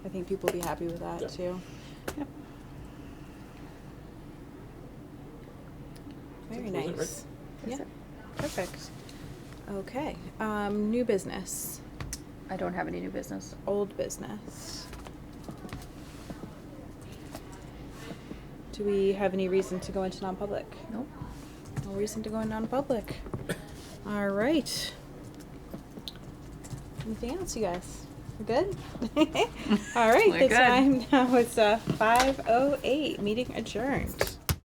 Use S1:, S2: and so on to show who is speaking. S1: think people will be happy with
S2: Yeah.
S1: that too. Yep. Very
S2: That was it, right?
S1: nice.
S3: That's
S1: Yeah,
S3: it.
S1: perfect. Okay, um, new business,
S3: I don't have any new business.
S1: old business. Do we have any reason to go into non-public?
S3: Nope.
S1: No reason to go in non-public. All right. Anything else, you guys? We're good? All right,
S3: We're
S1: the
S3: good.
S1: time now is uh, 5.08, meeting adjourned.